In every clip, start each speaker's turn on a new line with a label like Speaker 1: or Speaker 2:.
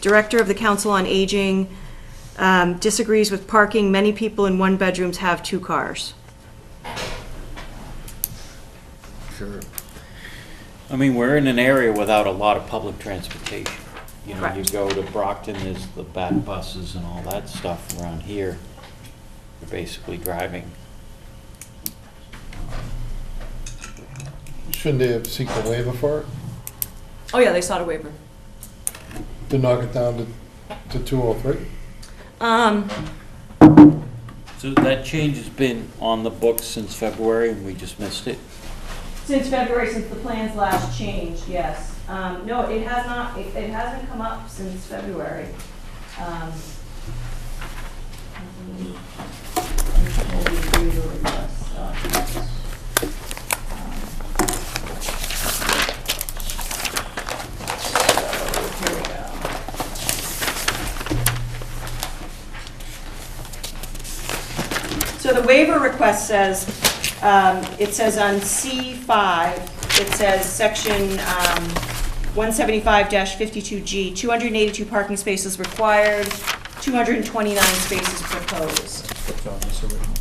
Speaker 1: Director of the Council on Aging um, disagrees with parking. Many people in one bedrooms have two cars.
Speaker 2: Sure.
Speaker 3: I mean, we're in an area without a lot of public transportation. You know, you
Speaker 1: Correct.
Speaker 3: go to Brockton, there's the bat buses and all that stuff around here. You're basically driving.
Speaker 2: Shouldn't they have seeked a waiver for it,
Speaker 1: Oh, yeah, they sought a waiver.
Speaker 2: to knock it down to, to two oh three?
Speaker 1: Um,
Speaker 3: So that change has been on the books since February and we just missed it.
Speaker 1: Since February, since the plans last changed, yes. Um, no, it has not, it, it hasn't come up since February. Um, let me- let me pull the review request up. Um, So, here we go. So the waiver request says, um, it says on C5, it says section um, 175-52G, 282 parking spaces required, 229 spaces proposed.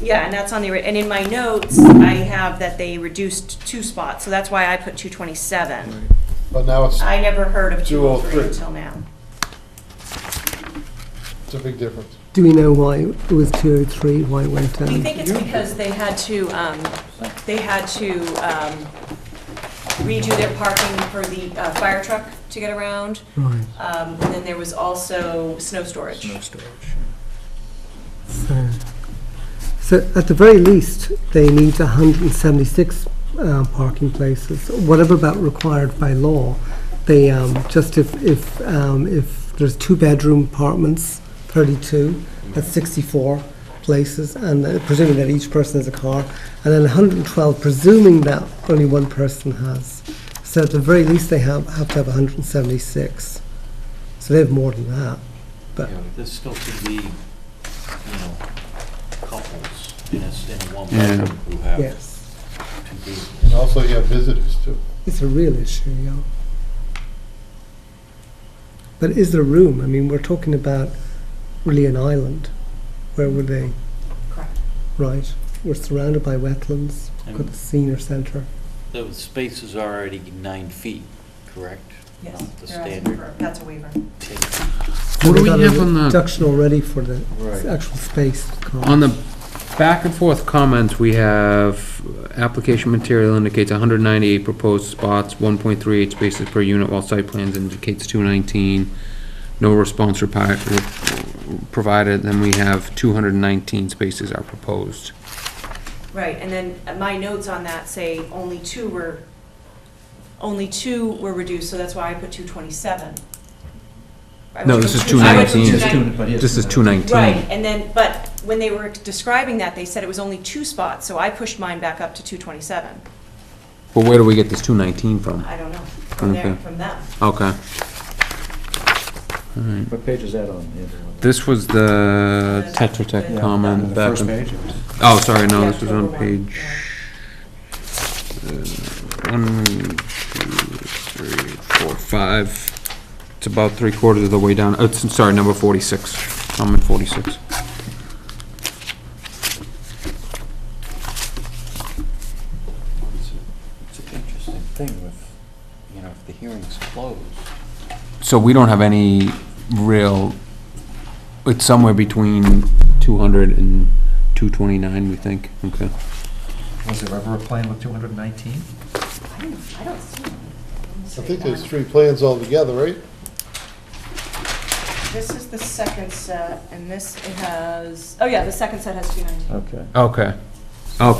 Speaker 1: Yeah, and that's on the, ori- and in my notes, I have that they reduced two spots, so that's why I put 227.
Speaker 2: But now it's,
Speaker 1: I never heard of 203
Speaker 2: 203.
Speaker 1: until now.
Speaker 2: it's a big difference.
Speaker 4: Do we know why it was 203, why it went down?
Speaker 5: Do you think it's because they had to, um, they had to um, redo their parking for the uh, fire truck to get around?
Speaker 4: Right,
Speaker 5: Um, And then there was also snow storage.
Speaker 4: so, so at the very least, they need 176 uh, parking places, whatever about required by law. They, um, just if, if, um, if there's two-bedroom apartments, 32, that's 64 places, and uh, presuming that each person has a car, and then 112, presuming that only one person has. So at the very least, they have, have to have 176. So they have more than that.
Speaker 3: You
Speaker 4: But-
Speaker 3: know, this still could be, you know, couples in a, s- in a one
Speaker 6: Yeah.
Speaker 3: bedroom who have
Speaker 4: Yes,
Speaker 3: two
Speaker 2: And
Speaker 3: vehicles.
Speaker 2: also you have visitors too.
Speaker 4: it's a real issue, yeah. But is there room? I mean, we're talking about really an island. Where would they?
Speaker 5: Correct.
Speaker 4: Right, we're surrounded by wetlands, We've got
Speaker 3: And
Speaker 4: the senior centre.
Speaker 3: the space is already nine feet, correct?
Speaker 5: Yes,
Speaker 3: Not The
Speaker 5: they're asking
Speaker 3: standard
Speaker 5: for- That's a waiver.
Speaker 3: 10
Speaker 6: What
Speaker 4: We've
Speaker 6: do we
Speaker 4: got a
Speaker 6: have on the,
Speaker 4: Reduction already for the
Speaker 3: Right.
Speaker 4: actual space.
Speaker 6: on the back and forth comments, we have application material indicates hundred ninety-eight proposed spots, one point three eight spaces per unit, while site plans indicates two nineteen. No response repi- re- provided, then we have two hundred and nineteen spaces are proposed.
Speaker 5: Right, and then uh, my notes on that say only two were, only two were reduced, so that's why I put 227. I
Speaker 6: No,
Speaker 5: would
Speaker 6: this
Speaker 5: go
Speaker 6: is
Speaker 5: two- I would go
Speaker 6: 219.
Speaker 5: 219.
Speaker 6: This is two nineteen.
Speaker 5: Right, and then, but when they were describing that, they said it was only two spots, so I pushed mine back up to 227.
Speaker 6: But where do we get this two nineteen from?
Speaker 5: I don't know, from there,
Speaker 6: Okay.
Speaker 5: from them.
Speaker 6: Okay.
Speaker 7: What page is that on? Andrew?
Speaker 6: This was the Tetra Tech
Speaker 5: Yeah.
Speaker 7: On
Speaker 6: comment
Speaker 7: the
Speaker 6: back
Speaker 7: first
Speaker 6: and-
Speaker 7: page?
Speaker 6: Oh, sorry, no,
Speaker 5: Yeah,
Speaker 6: this was on
Speaker 5: October one,
Speaker 6: page, uh, one, two, three, four, five. It's about three quarters of the way down, oh, it's, sorry, number forty-six, comment forty-six.
Speaker 3: It's a- it's an interesting thing with, you know, if the hearing's closed.
Speaker 6: So we don't have any real, it's somewhere between two hundred and two twenty-nine, we think, okay.
Speaker 7: Was there ever a plan with 219?
Speaker 5: I don't, I don't see one.
Speaker 2: I think there's three plans altogether, right?
Speaker 5: This is the second set, and this it has, oh yeah, the second set has 219.
Speaker 7: Okay.
Speaker 6: Okay,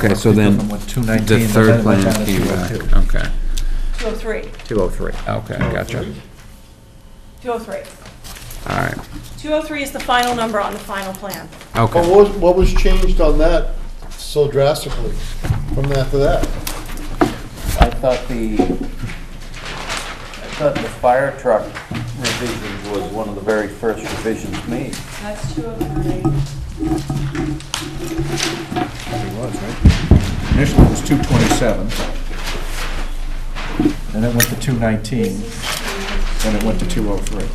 Speaker 6: okay, so then,
Speaker 7: From what,
Speaker 6: the
Speaker 7: 219? but then
Speaker 6: third
Speaker 7: it went down
Speaker 6: plan
Speaker 7: to
Speaker 6: came
Speaker 7: 202.
Speaker 6: back, okay,
Speaker 5: 203,
Speaker 6: two oh three, okay, gotcha,
Speaker 5: 203.
Speaker 6: all right,
Speaker 5: 203 is the final number on the final plan.
Speaker 6: okay.
Speaker 2: But what was, what was changed on that so drastically from that to that?
Speaker 3: I thought the, I thought the fire truck revision was one of the very first revisions made.
Speaker 5: That's 203.
Speaker 7: It was, right? Initially, it was 227. Then it went to oh 219, then it went to 203.